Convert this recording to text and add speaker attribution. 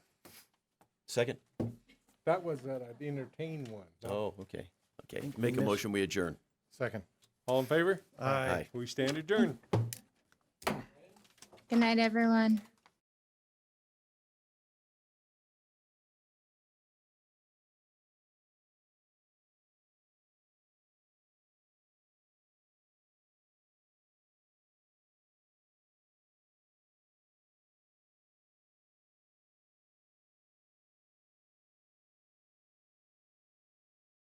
Speaker 1: Second?
Speaker 2: That was that I'd entertain one.
Speaker 1: Oh, okay. Okay. Make a motion, we adjourn.
Speaker 2: Second.
Speaker 3: All in favor?
Speaker 1: Aye.
Speaker 3: We stand adjourned.
Speaker 4: Good night, everyone.